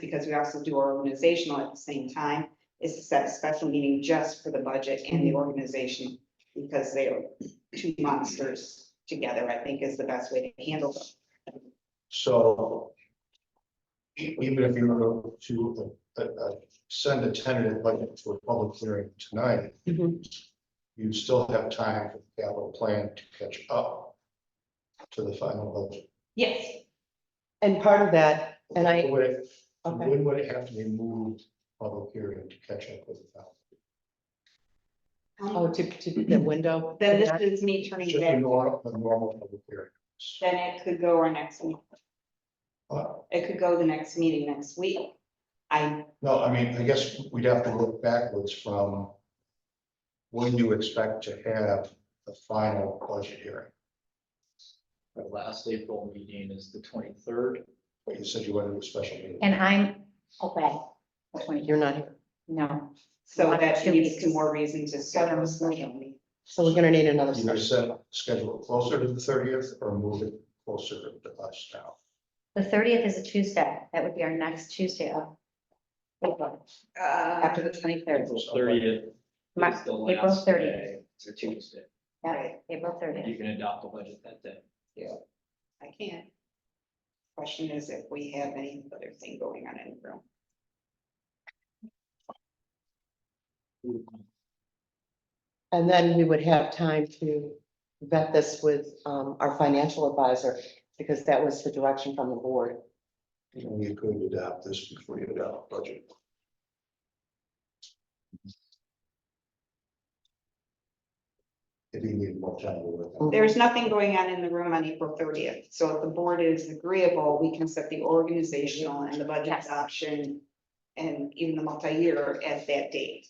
because we also do our organizational at the same time, is to set a special meeting just for the budget and the organization. Because they are two monsters together, I think is the best way to handle them. So. e-, Even if you were to, uh, uh, send a tentative budget to a public hearing tonight. Mm-hmm. You still have time for the capital plan to catch up. To the final budget. Yes, And part of that, and I, Would it- Okay. When would it have to be moved public hearing to catch up with the final? oh, to, to the window. then to that- this is me turning Just a it, normal, a normal public hearing. then it could go our next, meeting. Uh, it could go the next meeting next week. I, No, I mean, I guess we'd have to look backwards from. When you expect to have the final budget hearing? The last April meeting is the twenty-third. But you said you wanted a special meeting. And I'm away. the 20th. You're not here. No, so One, that two gives weeks. two more reason to schedule a special meeting. So we're gonna need another. Either session. set, schedule it closer to the thirtieth or move it closer to us now. the thirtieth is a Tuesday. That would be our next Tuesday of. April, After the twenty-third. April thirtieth. Ma- is the April last 30th. day. It's a Tuesday. Yeah, April You thirtieth. can adopt the budget that day. I can't. Question is if we have any other thing going on in the room. And then we would have time to vet this with um our financial advisor, because that was the direction from the board. And you could adopt this before you adopt budget. If you need more time to work. on it. There's nothing going on in the room on April thirtieth, so if the board is agreeable, we can set the organizational and the budget Yes. option. And even the multi-year at that date.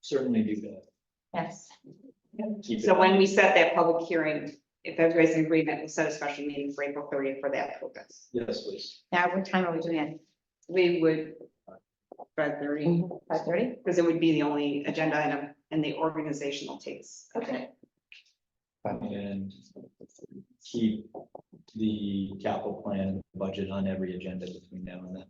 Certainly do that. Yes, Keep it So when we set that public hearing, if everybody's in agreement, we'll set a special meeting for April thirtieth for that purpose. Yes, please. now what time are we doing We would. Five thirty, it? Five thirty? because it would be the only agenda item and the organizational takes. Okay. And keep the capital plan budget on every agenda between now and then.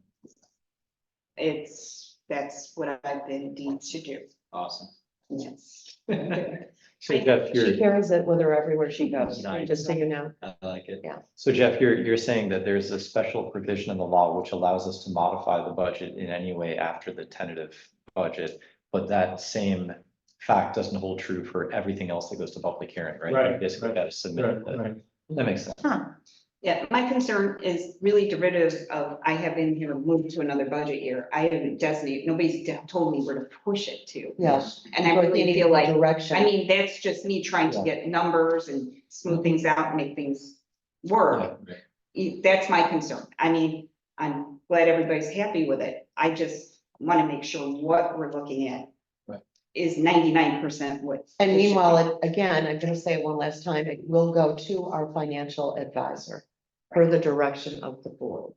It's, that's what I've been deemed to do. Awesome. Yes. So Jeff, She you're, carries it with her everywhere she goes, Nice. just so you know. I like it. so Jeff, you're, you're saying that there's a special provision in the law which allows us to modify the budget in any way after the tentative budget. But that same fact doesn't hold true for everything else that goes to public hearing, right? Right, You Basically, right, got to submit that. That makes sense. Huh, Yeah, my concern is really derivative of, I have in here moved to another budget year. I haven't designated, nobody's de- told me where to push it to. Yes. And I really feel like, Direction. I mean, that's just me trying to get numbers and smooth things out and make things work. Yeah. E- That's my concern. I mean, I'm glad everybody's happy with it. I just want to make sure what we're looking at Right. is ninety-nine percent what. And it should meanwhile, be. it- again, I'm gonna say it one last time, it will go to our financial advisor for the direction of the board.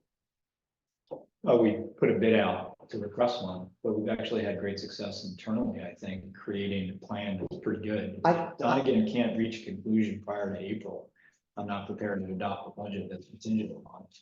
Well, we put a bid out to request one, but we've actually had great success internally, I think, creating a plan that's pretty good. I- Donegan can't reach a conclusion prior to April. I'm not prepared to adopt a budget that's contingent upon it.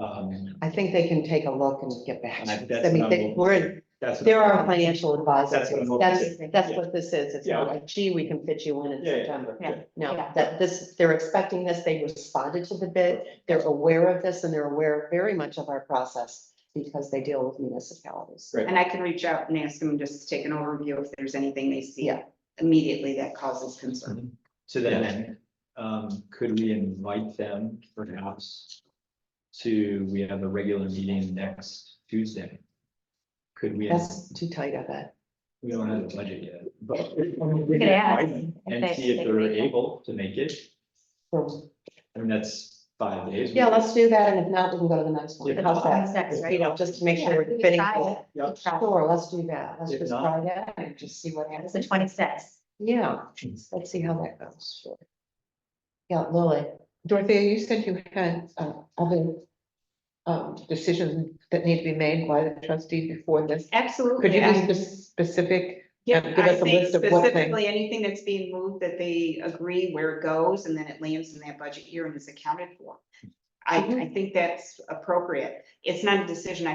Um, I think they can take a look and get back. And I- to us. I that's mean, what they, I'm- we're, in- that's. they're our financial advisors. That's what I'm hoping. That's, that's Yeah. what this is. It's not like, gee, we can fit you in in Yeah, yeah, September. yeah. No, Yeah. that this, they're expecting this. They responded to the bid. They're aware of this and they're aware very much of our process because they deal with municipalities. Right. And I can reach out and ask them just to take an overview if there's anything they see Yeah. immediately that causes concern. To that end, um, could we invite them perhaps to, we have a regular meeting next Tuesday? Could we, That's too tight of it. we don't have a budget yet, but. We could ask. And they- see if they they're make it. able to make it. So, I mean, that's five days. Yeah, let's do that. And if not, we can go to the next one. Yeah. How's that? That's next, You right? know, just to make sure Yeah, we're we could fitting. try for- it. Yep. Try it. Sure, let's do that. Let's If just not- try that and just see what It's happens. the twenty-sixth. Yeah, let's see how that goes. Sure. Yeah, Lily. Dorothea, you said you had uh, other um, decisions that need to be made by the trustees before this. Absolutely. Could you I- be spe- specific? Yeah, give I us a think list of what things? specifically anything that's being moved that they agree where it goes and then it lands in that budget year and is accounted for. Mm-hmm. I, I think that's appropriate. It's not a decision I